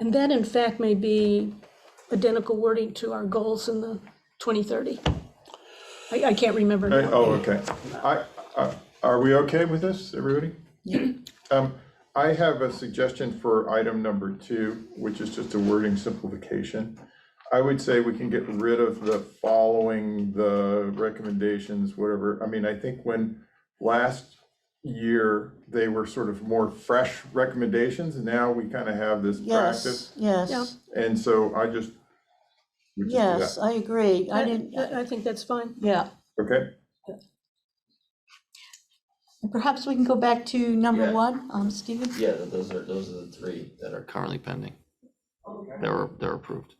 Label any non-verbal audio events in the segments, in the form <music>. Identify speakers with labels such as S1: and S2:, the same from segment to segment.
S1: And that in fact may be identical wording to our goals in the 2030. I, I can't remember
S2: Hey,
S1: now.
S2: Oh, okay. I, I- are we okay with this, everybody? Um, I have a suggestion for item number two, which is just a wording simplification. I would say we can get rid of the following, the recommendations, whatever. I mean, I think when last year, they were sort of more fresh recommendations, and now we kind of have this practice.
S3: Yes, yes,
S2: And so I just, we just do that.
S3: yes, I agree. I
S1: I,
S3: didn't,
S1: I think that's fine.
S3: yeah.
S2: Okay,
S3: Perhaps we can go back to number
S4: Yeah.
S3: one, um, Stephen?
S4: Yeah, th- those are, those are the three that are currently pending. That were, that were approved.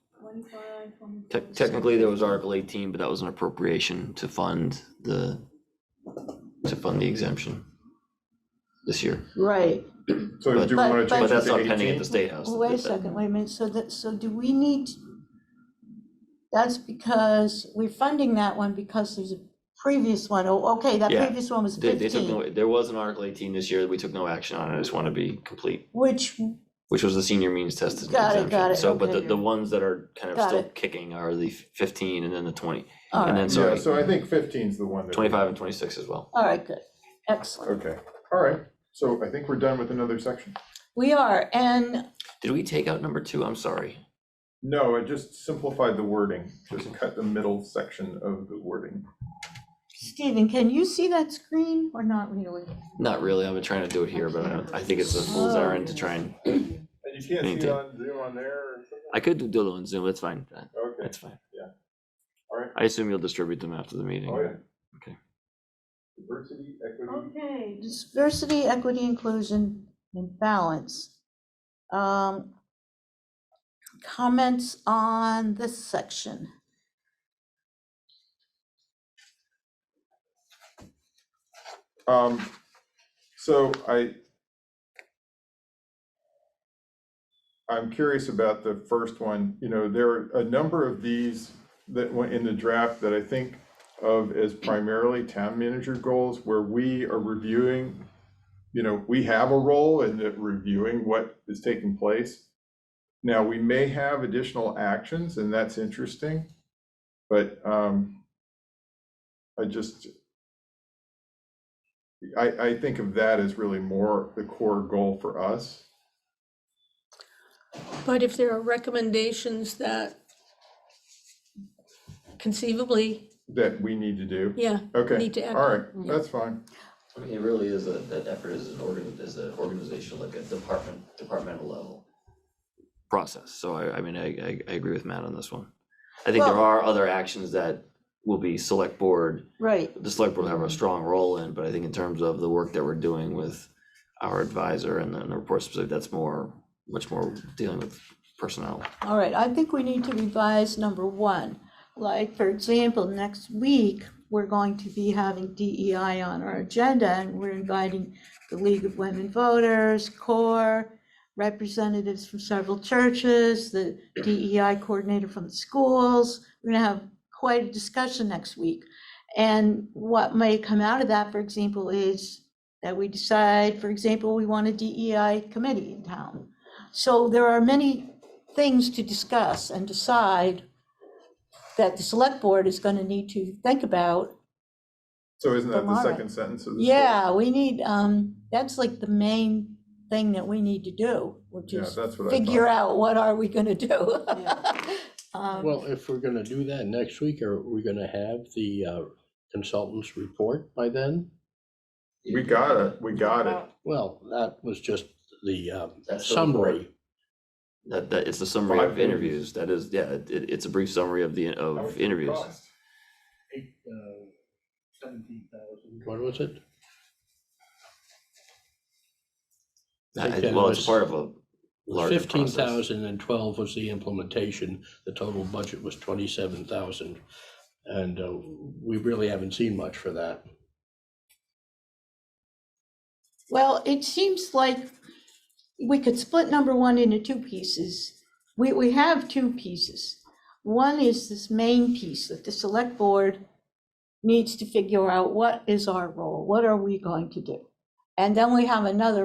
S4: Tec- Technically, there was Article eighteen, but that was an appropriation to fund the, to fund the exemption this year.
S3: Right.
S2: so do
S4: But-
S2: we want to
S3: But- but-
S4: But
S2: change it
S4: that's
S2: to
S4: not pending at
S2: 18?
S4: the State House.
S3: Oh, Wait a second, wait a minute. So that, so do we need, that's because we're funding that one because there's a previous one. Oh, okay, that
S4: Yeah.
S3: previous one was
S4: They, they took no,
S3: fifteen,
S4: there was an Article eighteen this year that we took no action on, I just want to be complete,
S3: which,
S4: which was the senior means tested
S3: Got it,
S4: exemption.
S3: got it,
S4: So, but the,
S3: okay.
S4: the ones that are kind of
S3: Got
S4: still
S3: it.
S4: kicking are the fifteen and then the twenty,
S3: all
S4: and then,
S3: right,
S2: Yeah,
S4: sorry,
S2: so I think 15 is the one that. we-
S4: twenty-five and twenty-six as well.
S3: all right, good. Excellent.
S2: Okay, all right, so I think we're done with another section.
S3: We are, and
S4: Did we take out number two? I'm sorry.
S2: No, I just simplified the wording, just cut the middle section of the wording.
S3: Stephen, can you see that screen or not really?
S4: Not really, I've been trying to do it here, but I don't, I think it's a fool's errand to try and,
S2: And you can't
S4: see it Anything.
S2: on Zoom on there or
S4: I could do it on Zoom, that's fine, that-
S2: something?
S4: that's fine.
S2: Yeah. All right. Oh,
S4: I assume you'll distribute them after the meeting. Okay.
S2: Diversity, equity.
S3: Okay, diversity, equity, inclusion, and balance. Um, Comments on this section?
S2: Um, so I. I'm curious about the first one, you know, there are a number of these that went in the draft that I think of as primarily town manager goals where we are reviewing. You know, we have a role in that reviewing what is taking place. Now, we may have additional actions and that's interesting, but, um. I just, I, I think of that as really more the core goal for us.
S1: But if there are recommendations that conceivably,
S2: that we need to do.
S1: yeah,
S2: Okay,
S1: need to
S2: all
S1: act.
S2: right, that's fine.
S4: I mean, it really is a, that effort is an organ, is an organizational, like a department, departmental level. Process, so I, I mean, I, I, I agree with Matt on this one. I think there
S3: Well-
S4: are other actions that will be select board,
S3: Right,
S4: the select board will have a strong role in, but I think in terms of the work that we're doing with our advisor and then the report specific, that's more, much more dealing with personnel.
S3: all right, I think we need to revise number one. Like, for example, next week, we're going to be having DEI on our agenda, and we're inviting the League of Women Voters, CORE, representatives from several churches, the DEI coordinator from the schools. We're gonna have quite a discussion next week. And what may come out of that, for example, is that we decide, for example, we want a DEI committee in town. So there are many things to discuss and decide that the select board is gonna need to think about.
S2: So isn't that the
S3: Tomorrow.
S2: second sentence of this?
S3: Yeah, we need, um, that's like the main thing that we need to do, which
S2: Yeah,
S3: is
S2: that's what I
S3: figure
S2: thought.
S3: out what are we gonna do? <laughs> Um,
S5: Well, if we're gonna do that next week, are we gonna have the uh, consultant's report by then?
S2: We got it, we got it.
S5: Well, that was just the um,
S4: That's the
S5: summary.
S4: That, that, it's a summary
S2: Five
S4: of
S2: pages.
S4: interviews, that is, yeah, it, it's a brief summary of the, of interviews.
S6: eight, uh, seventeen thousand.
S5: What was it?
S4: I-
S5: think that
S4: Well, it's
S5: was-
S4: part of a larger
S5: Fifteen
S4: process.
S5: thousand and twelve was the implementation. The total budget was twenty-seven thousand. And uh, we really haven't seen much for that.
S3: Well, it seems like we could split number one into two pieces. We, we have two pieces. One is this main piece that the select board needs to figure out what is our role? What are we going to do? And then we have another